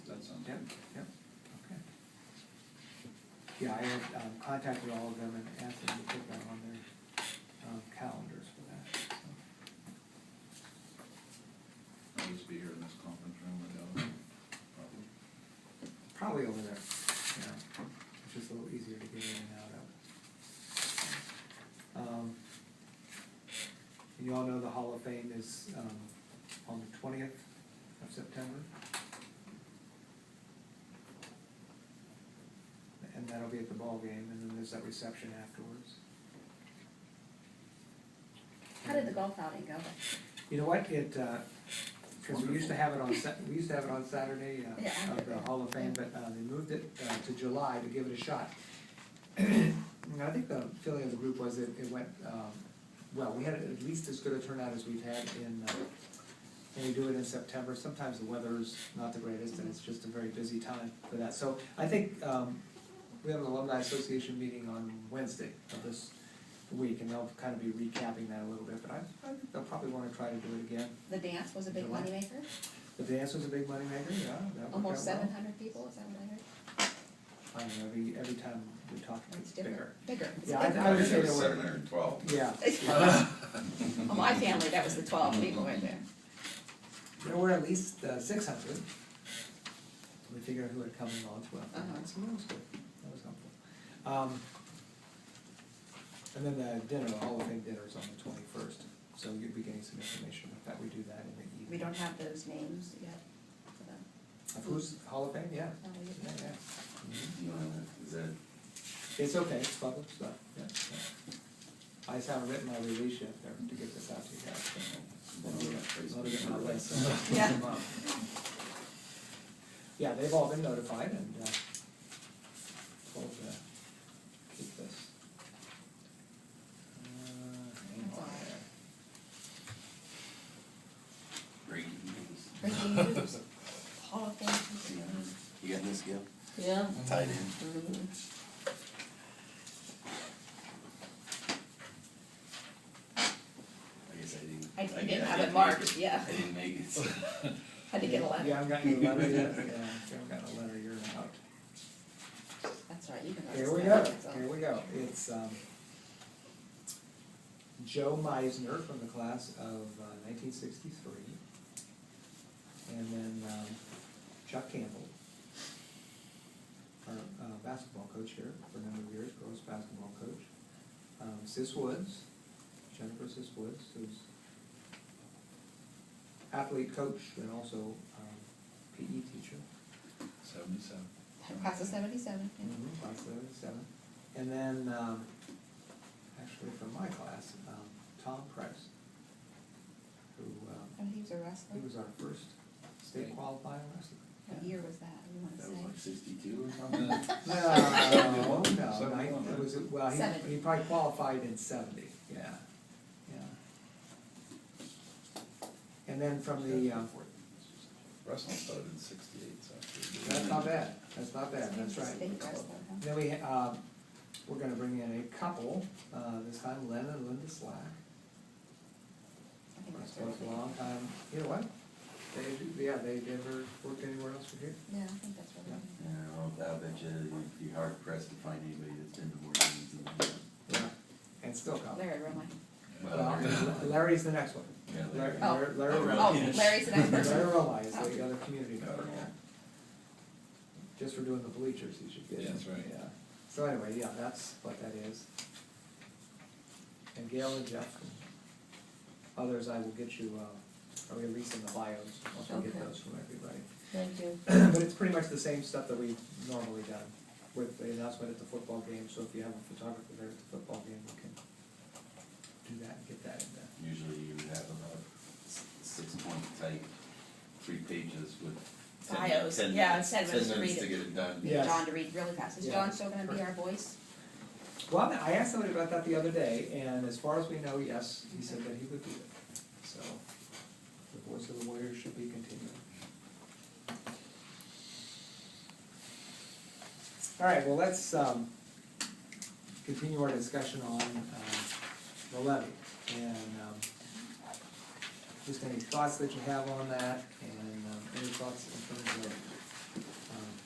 Yeah, I had um, contacted all of them and asked them to put that on their um, calendars for that, so. I'll just be here in this conference room or the other, probably. Probably over there, you know, it's just a little easier to get in and out of. Um, and You all know the Hall of Fame is, um, on the twentieth of September. And that'll be at the ball game, and then there's that reception afterwards. How did the golf outing go? You know what, it, uh 'cause cause we used to have it on Sat, we used to have it on Saturday, Yeah, I uh, of the remember. Hall of Fame, but, uh, they moved it, uh, to July to give it a shot. And I think the feeling of the group was it, it went, um, well, we had at least as good a turnout as we've had in, uh, when we do it in September, sometimes the weather's not the greatest, and it's just a very busy time for that, so I think, um, we have an alumni association meeting on Wednesday of this week, and they'll kind of be recapping that a little bit, but I, I think they'll probably wanna try to do it again. The dance was a big July. moneymaker, The dance was a big moneymaker, yeah, that worked out well. almost seven hundred people, is that what I heard? I don't know, every, every time we talk, It's it's bigger. different, bigger. It's Yeah, I- bigger. I would say there were- Seven hundred and twelve. Yeah, Well, Oh, my family, that was the twelve people right there. there were at least uh, six hundred. We figured who had come in all twelve, Uh-huh. so that was good, that was helpful. Um, and then the dinner, the Hall of Fame dinner is on the twenty-first, so you'll be getting some information about that, we do that in the evening. We don't have those names yet for them. Of who's Hall of Fame, yeah, No, we yeah, Mm-hmm. didn't. yeah, No, is that, it's okay, it's public stuff, yeah, yeah. I just haven't written my release yet there to get this out to you guys, so. well, that's Let me get my basically- list. Yeah. Yeah, they've all been notified and, uh, told to keep this. Uh, hang on there. Breaking news. Breaking news, Hall of Fame. You got this, Gil? Yeah. Tied in. Mm-hmm. I guess I didn't. I didn't guess I have it didn't make marked, yeah. I didn't make it. Had to get a You letter, haven't gotten your letter yet, yeah, if you haven't gotten a letter, you're out. that's all right, you can. write Here this we down, go, it's all- here we go, it's, um, Joe Meisner from the class of uh, nineteen sixty-three. And then, um, Chuck Campbell, our, uh, basketball coach here for a number of years, girls' basketball coach. Um, Sis Woods, Jennifer Sis Woods, who's athlete coach and also, um, PE teacher. Seventy-seven. Class of seventy-seven, yeah. Mhm, Class of seven. And then, um, actually from my class, um, Tom Price, who, um, Oh, he was a wrestler, he was our first state qualifying wrestler. what year was that, you wanna That was like say? sixty-two or something. No, no, Seven, nine- it was, well, Seven. he, he probably qualified in seventy, yeah, yeah. And then from the, um, Russell started in sixty-eight, so. it's- that's not bad, that's not bad, So he was that's a right. state wrestler, huh? Then we, uh, we're gonna bring in a couple, uh, this time Len and Linda Slack. I think I that's suppose right. a long time, you know what? They, yeah, they never worked anywhere else from here. Yeah, I think that's right. Yeah, well, I bet you you'd be hard pressed to find anybody that's been to more games than that. Yeah. And still come. Larry Roma. Well, Well, Larry's the next one. Yeah, Larry, Larry. Larry, Larry Oh, Rowley. Oh, Larry's the next person. Larry Rowley is the other community Oh, member. Yeah. Just for doing the bleachers, he should get. Yeah, that's right. Yeah. So anyway, yeah, that's what that is. And Gail and Jeff and others, I will get you, uh, a release in the bios, once we get Okay. those from everybody. Thank you. But it's pretty much the same stuff that we've normally done with the announcement at the football game, so if you have a photographer there at the football game, you can do that and get that in there. Usually you have about s- six point type, three pages with. 10 Bios, 10 yeah, minutes- instead of just Ten read minutes to it. get it done. Yes. John to read really fast. Is Yeah. John still gonna be our voice? Well, I asked somebody about that the other day, and as far as we know, yes, he said that he would do it. So, the voice of the Warriors should be continuing. All right, well, let's, um, continue our discussion on, um, the levy. And, um, just any thoughts that you have on that, and, um, any thoughts in terms of